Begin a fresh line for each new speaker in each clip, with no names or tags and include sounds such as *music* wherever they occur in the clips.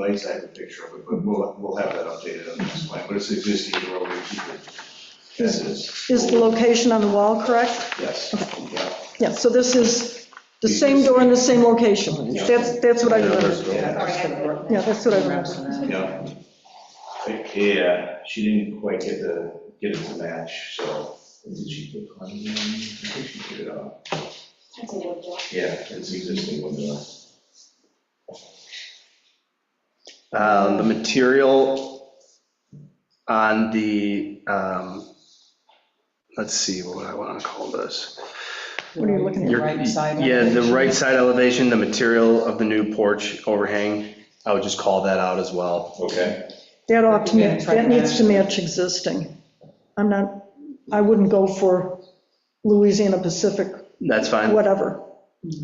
lights, I have a picture of it, but we'll, we'll have that updated on the next plan, but it's existing, we're going to keep it as is,
Is the location on the wall correct?
yes, yeah.
Yeah, so this is the same door in the same location. That's, that's what I remember.
Yeah,
Yeah, that's what I remember.
yeah. Like, Yeah, she didn't quite get the, get it to match, so, did she put climbing on? I think she put it on, yeah, it's existing window.
Um,
Mm.
The material on the, um, let's see, what would I want to call this?
What are you looking at?
Your-
Right side
Yeah, the
elevation.
right side elevation, the material of the new porch overhang, I would just call that out as well.
Okay,
That ought to,
Yeah,
ma-
try
that
to
needs to match existing. I'm not, I wouldn't go for Louisiana Pacific,
That's fine.
whatever.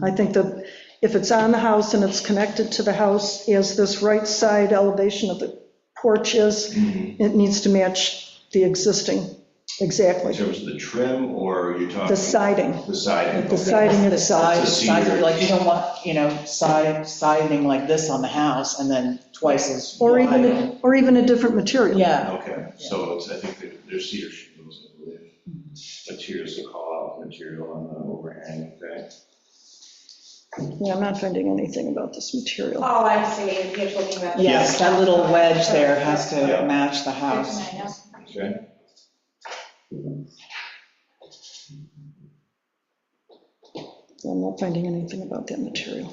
I think that if it's on the house and it's connected to the house, as this right side elevation of the porch is, it needs to match the existing,
in
exactly.
terms of the trim, or are you talking?
The siding,
The siding.
the
okay.
siding
The
itself.
side,
The
side,
cedar.
like, you don't want, you know, side, siding like this on the house and then twice as
Or
wide.
even, a- or even a different material.
Yeah,
Okay, so it's, I think there- there's cedar shingles, I believe. Materials to call out, material on the overhang, okay?
Yeah, I'm not finding anything about this material.
Oh, I see, you're talking about.
yes, that little wedge there has to
Yeah.
match the house.
Okay.
I'm not finding anything about that material.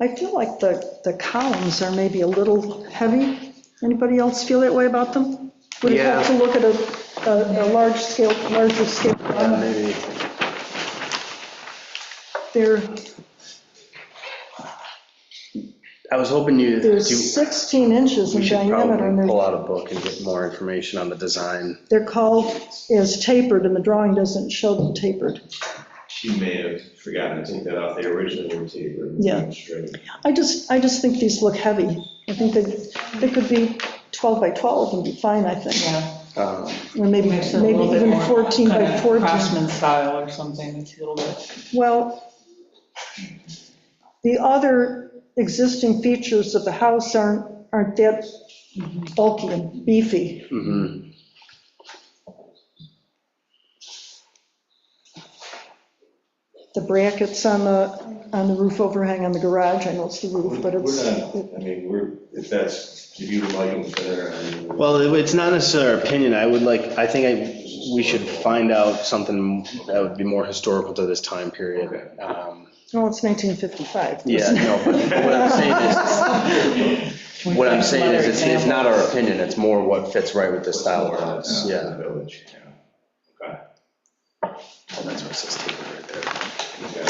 I feel like the, the columns are maybe a little heavy. Anybody else feel that way about them? Would it help to look at a, a a large scale, larger scale?
Yeah, Uh, Maybe
They're,
I was hoping you,
they're
you-
16 inches in
we should
diameter and
probably
they're
pull out a book and get more information on the design.
They're called as tapered, and the drawing doesn't show them tapered.
She may have forgotten to take that off, they originally were tapered. and
Yeah.
straight.
I just, I just think these look heavy. I think they, they could be 12 by 12 and be fine, I think,
Yeah.
Um,
or maybe,
Makes it a little
maybe
bit
even
more
14
kinda
by 14.
Craftsman style or something, it's a little bit.
Well, the other existing features of the house aren't, aren't that bulky and beefy.
mhm.
The brackets on the, on the roof overhang on the garage, I know it's the
We're
roof, but it's,
not, I mean, we're, if that's, if you would like them better, I mean.
Well, *laughs* it- it's not necessarily our opinion, I would like, I think I, we should find out something that would be more historical to this time period. Um,
well, it's 1955.
Yeah, no, but what I'm saying
*laughs*
is, what I'm saying is, it's, it's not our opinion, it's more what fits right with the style of house,
Yeah,
yeah.
the Village, yeah. Okay.
That's what it says tapered right there.
Okay.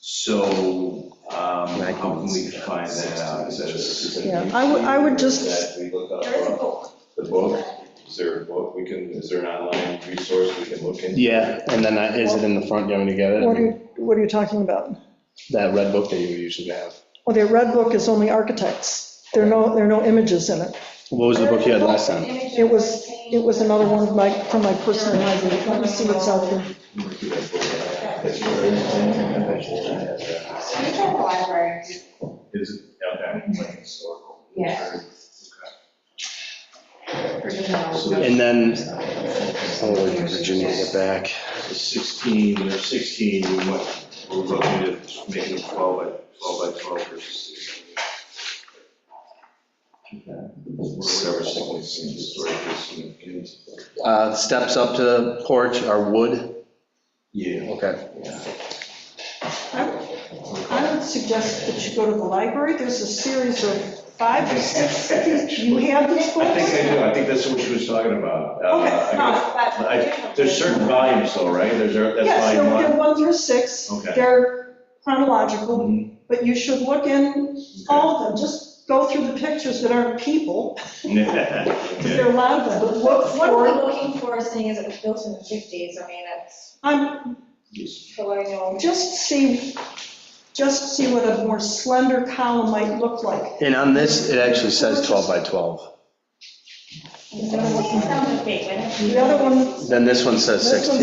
So, um, how can we find that out? Is that a specific?
Yeah, I would- I would just-
That we look up
There is a book.
The book, is there a book, we can, is there an online resource we can look into?
Yeah, and then I- is it in the front, you want me to get
What are,
it?
you- what are you talking about?
That red book that you usually have.
Well, their red book is only architects. There are no, there are no images in it.
What was the book you had last time?
It was, it was another one of my, from my personal library. Let me see what's out there.
We can do that book. That's where everything-
You tried the library.
Is it, okay, like historical?
Yeah.
And then, oh, wait for Virginia to get back.
So 16, or 16, we went, we're looking to make them 12 by, 12 by 12 versus 16. Or whatever, 16, historically significant.
Uh, steps up to the porch are wood,
Yeah.
okay.
I would suggest that you go to the library. There's a series of five or six. of these. Do you have these
I think
books?
I do, I think that's what she was talking about. Uh,
Okay,
I guess- I-
But-
There's certain volumes though, right? There's, a- that's
Yes, they're
volume
they're
one.
one through six.
Okay.
They're chronological,
Mhm,
but you should look in
okay.
all of them. Just go through the pictures that aren't people,
Mm-hmm. *laughs*
because
Okay.
there are a lot of them. But look
What we're
for,
looking for, seeing as it was built in the fifties, I mean, it's
I'm,
Yes.
colonial.
Just see, just see what a more slender column might look like.
And on this, it actually says 12 by 12.
Sixteen sounds big, but.
The other one
Then this one says
This one
16.